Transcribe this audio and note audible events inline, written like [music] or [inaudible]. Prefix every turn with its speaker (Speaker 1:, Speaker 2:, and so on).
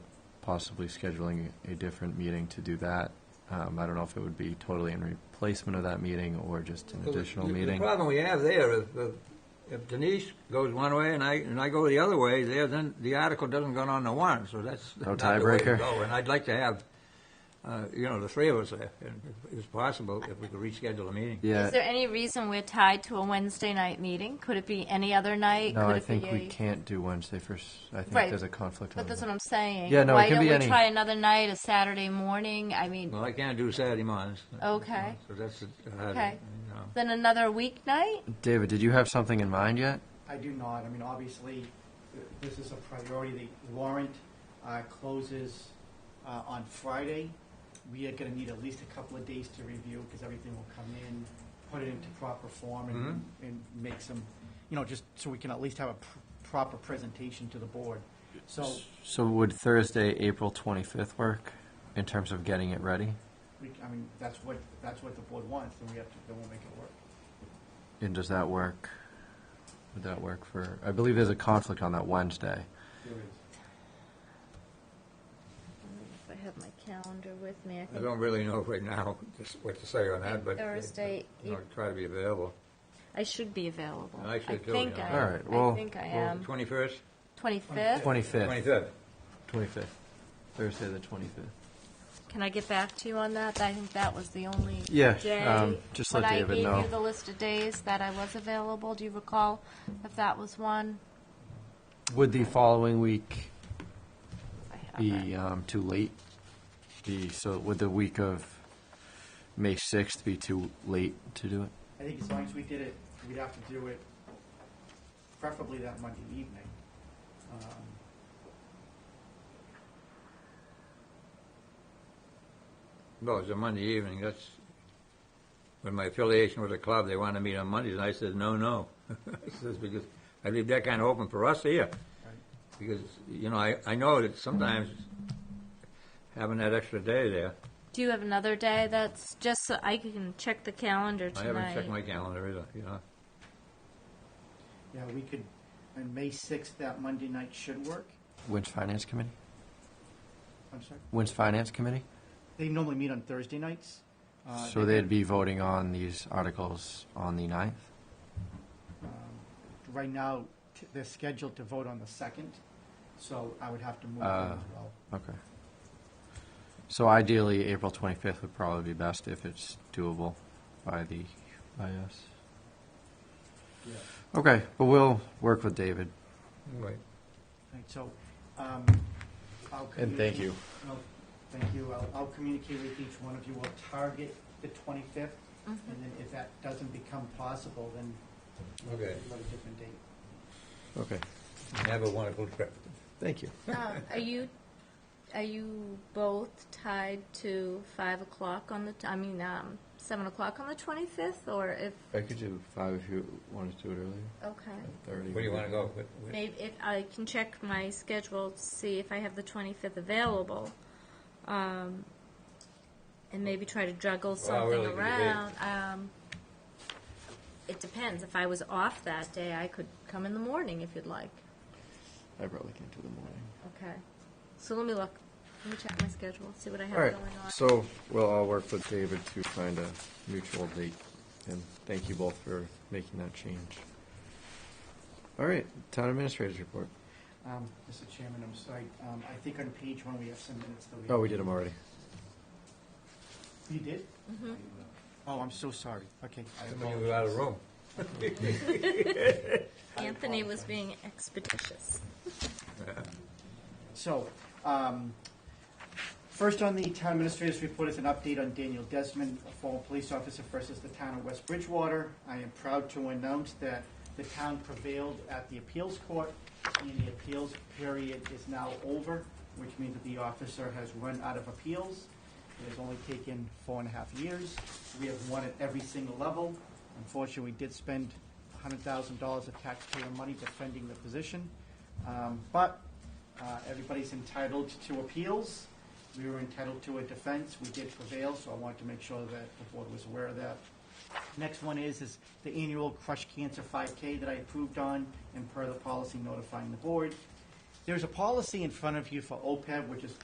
Speaker 1: possibly scheduling a different meeting to do that. Um, I don't know if it would be totally in replacement of that meeting or just an
Speaker 2: So the-
Speaker 1: additional
Speaker 2: the-
Speaker 1: meeting.
Speaker 2: The problem we have there is if- if Denise goes one way and I, and I go the other way, there, then the article doesn't go on the warrant, so that's
Speaker 1: No
Speaker 2: not the way to
Speaker 1: tiebreaker.
Speaker 2: go. And I'd like to have, uh, you know, the three of us there, and if it's possible, if we could reschedule a meeting.
Speaker 1: Yeah,
Speaker 3: Is there any reason we're tied to a Wednesday night meeting? Could it be any other night?
Speaker 1: no,
Speaker 3: Could
Speaker 1: I
Speaker 3: it
Speaker 1: think
Speaker 3: be
Speaker 1: we
Speaker 3: a-
Speaker 1: can't do Wednesday first. I think
Speaker 3: Right,
Speaker 1: there's a conflict.
Speaker 3: But
Speaker 1: on
Speaker 3: that's
Speaker 1: that.
Speaker 3: what I'm saying.
Speaker 1: Yeah, no, it
Speaker 3: Why
Speaker 1: can
Speaker 3: don't
Speaker 1: be
Speaker 3: we
Speaker 1: any-
Speaker 3: try another night, a Saturday morning? I mean,
Speaker 2: Well, I can't do Saturday mornings. you know,
Speaker 3: Okay.
Speaker 2: So that's, uh,
Speaker 3: Okay.
Speaker 2: you know.
Speaker 3: then another weeknight?
Speaker 1: David, did you have something in mind yet?
Speaker 4: I do not. I mean, obviously, th- this is a priority. The warrant uh, closes uh, on Friday. We are going to need at least a couple of days to review because everything will come in, put it into proper form and, and make some, you know, just so we can at least have a pr- proper presentation to the board. So
Speaker 1: So would Thursday, April 25th work in terms of getting it ready
Speaker 4: we, I mean, that's what, that's what the board wants, then we have to, then we'll make it work.
Speaker 1: and does that work? Would that work for, I believe there's a conflict on that Wednesday.
Speaker 3: I have my calendar with me. I
Speaker 2: I
Speaker 3: think
Speaker 2: don't really know right now just what to say on that, but.
Speaker 3: Thursday, e-
Speaker 2: You know, try to be available.
Speaker 3: I should be available.
Speaker 2: I should too,
Speaker 3: think
Speaker 2: yeah.
Speaker 3: I-
Speaker 1: All right, well-
Speaker 3: I think I am.
Speaker 2: Twenty-first,
Speaker 3: 25th?
Speaker 1: 25th.
Speaker 2: twenty-third.
Speaker 1: 25th. Thursday, the 25th.
Speaker 3: Can I get back to you on that? I think that was the only
Speaker 1: Yeah,
Speaker 3: day.
Speaker 1: um, just let David
Speaker 3: When I
Speaker 1: know.
Speaker 3: gave you the list of days that I was available, do you recall if that was one?
Speaker 1: Would the following week
Speaker 3: I have
Speaker 1: be
Speaker 3: it.
Speaker 1: um, too late? The, so would the week of May 6th be too late to do it?
Speaker 4: I think as long as we did it, we'd have to do it preferably that Monday evening. Um,
Speaker 2: Well, it's a Monday evening, that's, when my affiliation with the club, they wanted to meet on Mondays, and I said, no, no. [laughs] I says, because I leave that kind of open for us here. Because, you know, I, I know that sometimes having that extra day there,
Speaker 3: Do you have another day that's just so I can check the calendar
Speaker 2: I
Speaker 3: tonight?
Speaker 2: haven't checked my calendar either, you know.
Speaker 4: Yeah, we could, and May 6th, that Monday night should work.
Speaker 1: When's Finance Committee?
Speaker 4: I'm sorry.
Speaker 1: When's Finance Committee?
Speaker 4: They normally meet on Thursday nights. Uh,
Speaker 1: So they'd be voting on these articles on the 9th?
Speaker 4: Right now, t- they're scheduled to vote on the 2nd, so I would have to move them
Speaker 1: Uh,
Speaker 4: as well.
Speaker 1: Okay. So ideally, April 25th would probably be best if it's doable by the, by us.
Speaker 4: Yeah.
Speaker 1: Okay, but we'll work with David.
Speaker 2: Right.
Speaker 4: Right, So, um, I'll.
Speaker 1: And thank you.
Speaker 4: communicate- No, Thank you. I'll, I'll communicate with each one of you. We'll target the 25th, and
Speaker 3: Mm-hmm.
Speaker 4: then if that doesn't become possible, then we'll
Speaker 2: Okay.
Speaker 4: we'll have a different date.
Speaker 1: Okay,
Speaker 2: Have a wonderful trip.
Speaker 1: thank you.
Speaker 3: Um, Are you, are you both tied to five o'clock on the, t- I mean, um, seven o'clock on the twenty-fifth, or if,
Speaker 1: I could do five if you wanted to do it earlier.
Speaker 3: okay.
Speaker 2: Where do you want to go? What- what-
Speaker 3: Maybe if, I can check my schedule to see if I have the twenty-fifth available. Um, and maybe try to juggle something
Speaker 2: really, it could be-
Speaker 3: around, um. It depends. If I was off that day, I could come in the morning if you'd like.
Speaker 1: I probably can't do the morning.
Speaker 3: Okay. So let me look. Let me check my schedule, see what I have
Speaker 1: All right,
Speaker 3: going on.
Speaker 1: so we'll all work with David to find a mutual date, and thank you both for making that change. All right, town administrator's report.
Speaker 4: Um, Mr. Chairman, I'm sorry. Um, I think on page one, we have some minutes that we.
Speaker 1: Oh, we did them already.
Speaker 4: You did? Oh, I'm so sorry. Okay. I
Speaker 2: When you were out of room.
Speaker 3: Anthony was being expeditious.
Speaker 4: So, um, first on the town administrator's report is an update on Daniel Desmond, a former police officer versus the town of West Bridgewater. I am proud to announce that the town prevailed at the appeals court, and the appeals period is now over, which means that the officer has run out of appeals. It has only taken four and a half years. We have won at every single level. Unfortunately, we did spend $100,000 of taxpayer money defending the position. Um, But uh, everybody's entitled to appeals. We were entitled to a defense. We did prevail, so I wanted to make sure that the board was aware of that. Next one is, is the annual Crush Cancer 5K that I approved on and per the policy notifying the board. There's a policy in front of you for OPEB, which is